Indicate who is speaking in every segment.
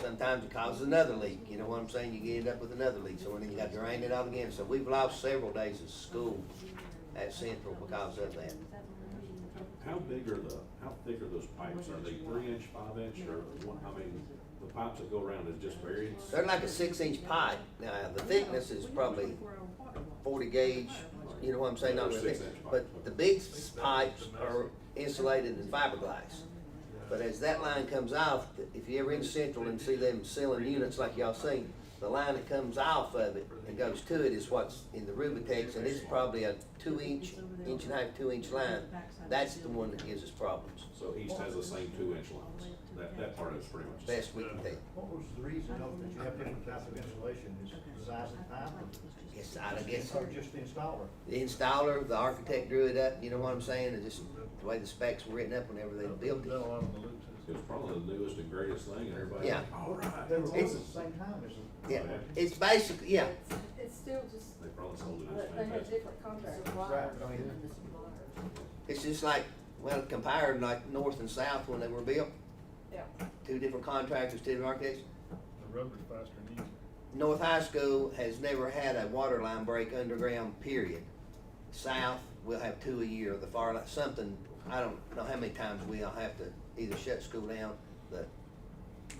Speaker 1: sometimes it causes another leak, you know what I'm saying? You end up with another leak, so then you got to drain it out again. So we've lost several days of school at Central because of that.
Speaker 2: How big are the, how thick are those pipes? Are they three inch, five inch, or what, I mean, the pipes that go around is just varied?
Speaker 1: They're like a six inch pipe. Now, the thickness is probably forty gauge, you know what I'm saying? Not really thick, but the big s- pipes are insulated in fiberglass. But as that line comes off, if you ever in Central and see them selling units like y'all seen, the line that comes off of it and goes to it is what's in the Rubitex, and it's probably a two inch, inch and a half, two inch line. That's the one that gives us problems,
Speaker 2: So east has the same two inch lines. That, that part is pretty much. the same.
Speaker 1: best we can tell.
Speaker 3: What was the reason though that you have different types of insulation, is the size of the pipe?
Speaker 1: Yes, I guess.
Speaker 3: Or just the installer?
Speaker 1: the installer, the architect drew it up, you know what I'm saying, and just the way the specs were written up whenever they built it.
Speaker 2: It was probably the newest and greatest thing, and everybody's like,
Speaker 1: Yeah.
Speaker 2: all right.
Speaker 3: They were
Speaker 2: They
Speaker 3: both at the same time, is it?
Speaker 1: Yeah, it's basically, yeah,
Speaker 4: It's still just,
Speaker 2: probably sold it as
Speaker 4: they have
Speaker 2: fantastic.
Speaker 4: different contracts.
Speaker 3: Right, I mean,
Speaker 1: it's just like, well, compared like north and south when they were built,
Speaker 4: Yeah.
Speaker 1: two different contractors, two different architects.
Speaker 5: The rubber's faster than you.
Speaker 1: North High School has never had a water line break underground, period. South, we'll have two a year, the far, li- something, I don't know how many times we'll have to either shut school down, the,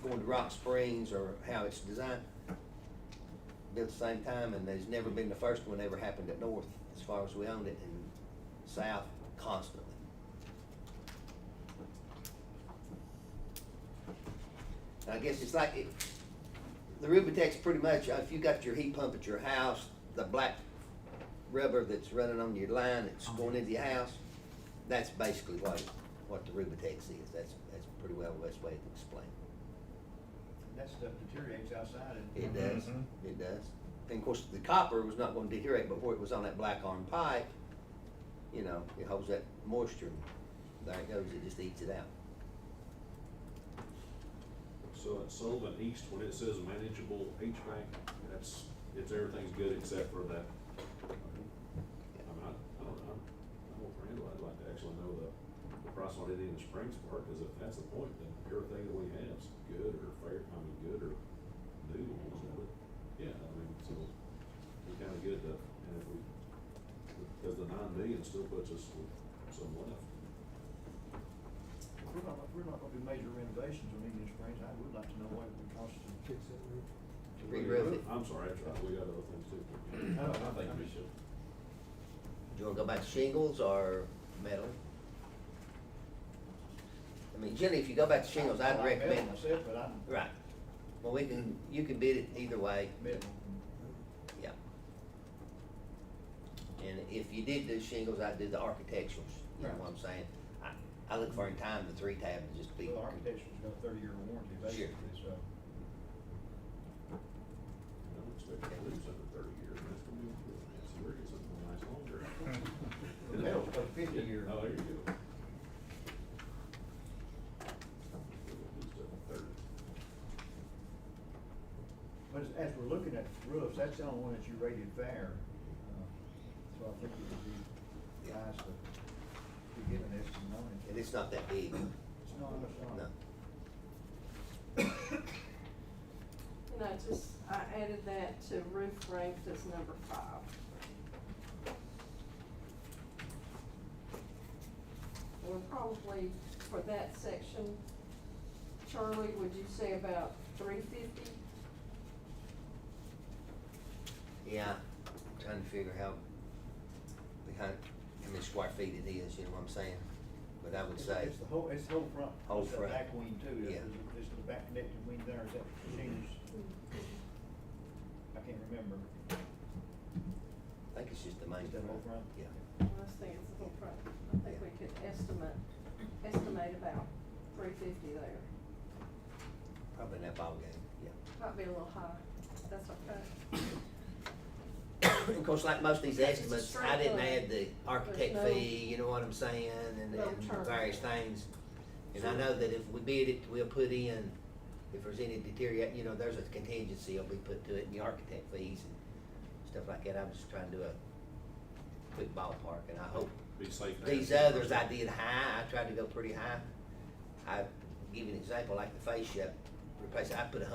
Speaker 1: going to Rock Springs or how it's designed. Built at the same time, and there's never been the first one ever happened at North, as far as we owned it, and South constantly. I guess it's like, it, the Rubitex pretty much, uh, if you got your heat pump at your house, the black rubber that's running on your line, that's going into your house, that's basically what, what the Rubitex is. That's, that's pretty well the best way to explain
Speaker 3: that stuff deteriorates outside
Speaker 1: it.
Speaker 3: and.
Speaker 1: It does,
Speaker 5: Mhm.
Speaker 1: it does. And of course, the copper was not gonna deteriorate before it was on that black arm pipe. You know, it holds that moisture, and there it goes, it just eats it out.
Speaker 2: So at Sullivan East, when it says manageable HVAC, that's, it's, everything's good except for that. I mean, I, I don't know, I don't Randall, I'd like to actually know the, the price on Indian Springs part, cause if that's the point, then everything that we have's good or fair, I mean, good or new, or whatever. Yeah, I mean, so, it's kinda good to, and if we, cause the nine million still puts us with some left.
Speaker 3: If we're not, if we're not gonna do major renovations on Indian Springs, I would like to know what it would cost to. Fix that roof.
Speaker 1: Re-roof it.
Speaker 2: I'm sorry, I tried, we got other things too.
Speaker 3: I don't-
Speaker 2: I think we should.
Speaker 1: Do you wanna go back to shingles or metal? I mean, generally, if you go back to shingles, I'd
Speaker 3: I like metal
Speaker 1: recommend,
Speaker 3: Myself, but I'm
Speaker 1: right. Well, we can, you can bid it either way,
Speaker 3: metal.
Speaker 1: yeah. And if you did do shingles, I'd do the architecturals, you know what I'm saying? I, I look for in time the three tab to just be.
Speaker 3: Well, architecture's got a thirty-year warranty
Speaker 1: Sure.
Speaker 3: basically, so.
Speaker 2: I don't expect to lose under thirty years, that's gonna be, that's serious, it's gonna last longer.
Speaker 3: The metal's got a fifty-year.
Speaker 2: Oh, there you go. At least up to 30.
Speaker 3: But as, as we're looking at roofs, that's the only one that you rated fair, uh, so I think it would be wise to, to give an estimate on it.
Speaker 1: And it's not that big,
Speaker 3: It's not, it's not.
Speaker 1: no.
Speaker 4: And I just, I added that to roof ranked as number five. And probably for that section, Charlie, would you say about three fifty?
Speaker 1: Yeah, I'm trying to figure how, behind, how many square feet it is, you know what I'm saying? But I would
Speaker 3: It's-
Speaker 1: say.
Speaker 3: It's the whole, it's the whole front.
Speaker 1: Whole
Speaker 3: It's the
Speaker 1: front.
Speaker 3: back wing too,
Speaker 1: Yeah.
Speaker 3: is, is the back connected wing there, is that shingles?
Speaker 4: Hmm.
Speaker 3: I can't remember.
Speaker 1: I think it's just the main
Speaker 3: Just that whole
Speaker 1: front,
Speaker 3: front?
Speaker 1: yeah.
Speaker 4: Let's think it's a little front, I think we could estimate, estimate about three fifty there.
Speaker 1: Probably in that ballgame, yeah.
Speaker 4: Might be a little high, that's okay.
Speaker 1: And of course, like most of these
Speaker 4: It's a
Speaker 1: estimates, I
Speaker 4: straight
Speaker 1: didn't
Speaker 4: line.
Speaker 1: add the architect
Speaker 4: There's no-
Speaker 1: fee, you know what I'm saying, and,
Speaker 4: no
Speaker 1: and
Speaker 4: term.
Speaker 1: various things. And I
Speaker 4: Sure.
Speaker 1: know that if we bid it, we'll put in, if there's any deteriorate, you know, there's a contingency will be put to it, and the architect fees and stuff like that. I'm just trying to do a quick ballpark, and I hope
Speaker 2: Be safe. now.
Speaker 1: These others I did high, I tried to go pretty high. I, give you an example, like the fascia replacement, I put a